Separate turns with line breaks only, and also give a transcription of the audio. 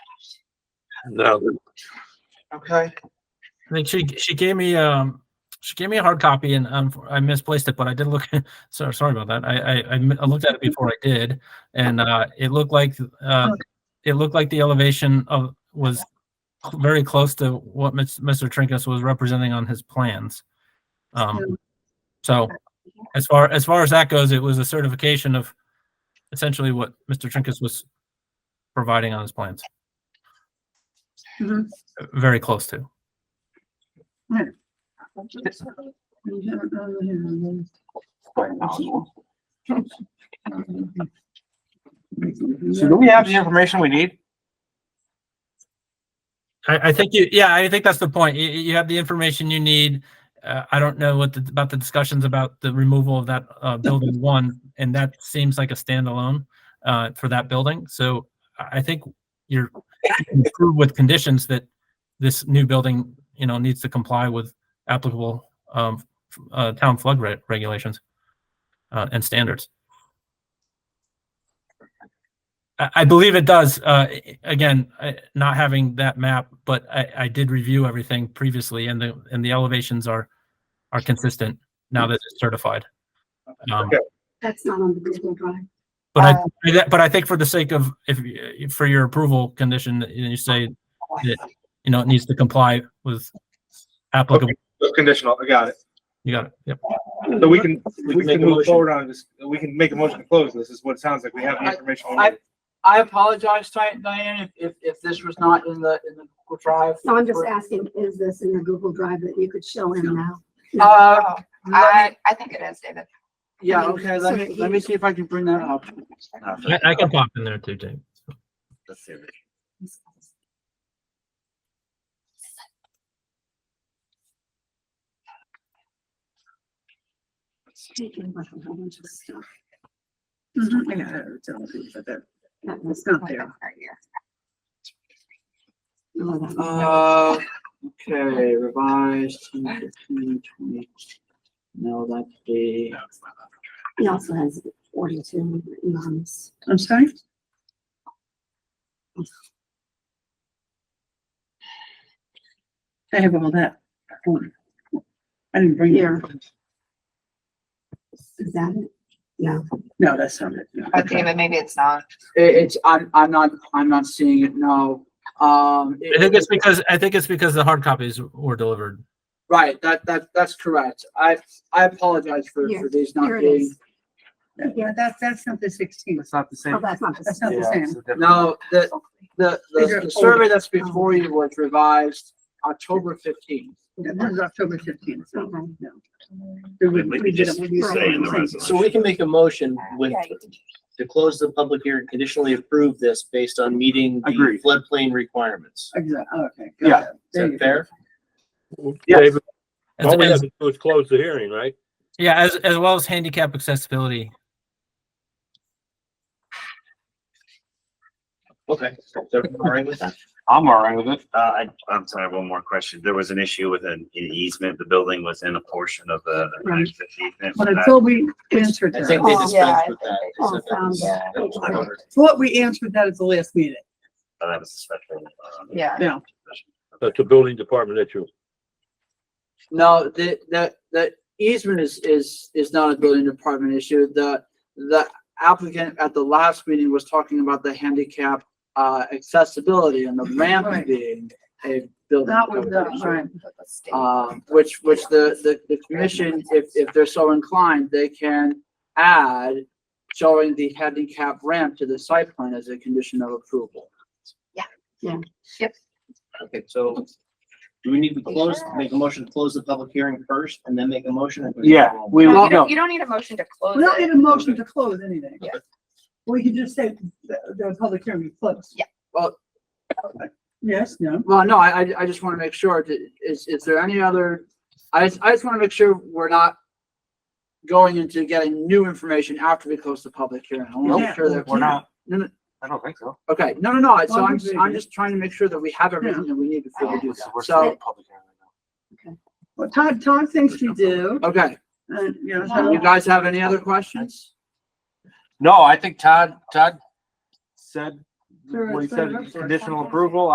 No,
Okay.
I think she she gave me um she gave me a hard copy and um I misplaced it, but I did look. so sorry about that. I, I I mi- I looked at it before I did, and uh, it looked like uh, it looked like the elevation of was cl- very close to what Ms- Mr. Trinkus was representing on his plans. Um, so as far as far as that goes, it was a certification of essentially what Mr. Trinkus was providing on his plans.
Mhm.
Very close to.
So do we have the information we need?
I, I think you, yeah, I think that's the point. You, you have the information you need. Uh, I don't know what the, about the discussions about the removal of that, uh, building one, and that seems like a standalone, uh, for that building. So I, I think you're you can prove with conditions that this new building, you know, needs to comply with applicable, um, f- uh, town flood reg- regulations, uh, and standards. I, I believe it does. Uh, a- again, I, not having that map, but I, I did review everything previously, and the and the elevations are are consistent now that it's certified. Um,
Okay. Um,
That's not on the Google Drive.
But I I- but I think for the sake of if you- for your approval condition, that you say you know it needs to comply with applicable.
It's Conditional, I got it.
You got it. Yep.
So we can,
can
we
make a
can move
motion.
forward on this, we can make a motion to close this, is what it sounds like, we have the information. we
I-
need.
I apologize, Di- Diane, if, if, if this was not in the, in the Google Drive.
So I'm just asking, is this in the Google Drive that you could show him now?
Uh,
Oh,
let me-
I, I think it is, David.
yeah, okay, let me, let me see if I can bring that up.
I, I can pop in there too, James.
Taking like a whole bunch of stuff. Mm-hmm.
Mhm,
That was not
Right
there.
here.
No, Oh, that was-
Uh, okay, revised 10, 20. No, that's the,
He also has forty-two mums.
I'm sorry? I have all that. I didn't bring
Here.
it.
Is that it? No.
No, that's not it. No.
But David, maybe it's not.
it- it's, I'm, I'm not, I'm not seeing it, no. Um. it-
I think it's because I think it's because the hard copies were delivered.
Right, that, that, that's correct. I, I apologize for,
Here,
for these
Here
not
it
being.
is.
Yeah, that's, that's not the sixteen.
It's not the
Oh,
same.
that's not the
That's not the same.
No, the, the,
These
the,
are
the survey that's before you was revised October fifteenth.
Yeah, This is October fifteenth.
Okay.
So we can make a motion with,
Yeah, you can-
to close the public hearing, conditionally approve this based on meeting the
Agreed.
floodplain requirements.
Exactly, okay. got
Yeah.
it.
Is
There you
that
go.
fair?
Yes.
David, all
Oh,
we have to do is close the hearing, right?
Yeah, as as well as handicap accessibility.
Okay. Is everyone all right with that?
I'm all right with it.
Uh, I, I'm sorry, one more question. There was an issue with an an easement. The building was in a portion of the the
Right.
access
But
easement. Was that-
until we answered
I think
that,
they
Oh,
yeah, I
dispensed with
think
that.
Oh,
They said that was-
sounds-
that was
okay.
covered.
what we answered that at the last meeting,
uh, That was a special. uh,
Yeah.
yeah.
That's the building department issue.
No, the, that, that easement is, is, is not a building department issue. The, the applicant at the last meeting was talking about the handicap, uh, accessibility and the ramp
Right.
being a building.
That was,
department
uh,
issue.
right.
But the state-
Um, which, which the, the, the commission, if, if they're so inclined, they can add showing the handicap ramp to the site plan as a condition of approval.
Yep.
Okay, so do we need to close, make a motion to close the public hearing first and then make a motion?
Yeah, we
No,
will go.
You don't- you don't need a motion to close
We don't need
it.
a motion to close anything.
Yeah.
We can just say the, the public hearing is closed.
Yeah.
Well-
Yes, no,
Well, no, I, I, I just want to make sure, that- is, is there any other, I just, I just want to make sure we're not going into getting new information after we close the public hearing. I want to make sure that
We're not,
No, no.
I don't think so.
Okay, no, no, no, so
Well,
I'm,
maybe.
I'm just trying to make sure that we have everything that we need before we do
It's the
that.
worst thing in
So,
public hearing right now.
well, Todd, Todd thinks you do, Uh,
okay,
and, you know,
you
so-
guys have any other questions?
No, I think Todd, Todd said
Sure, it's
We
been
said
up for-
conditional approval,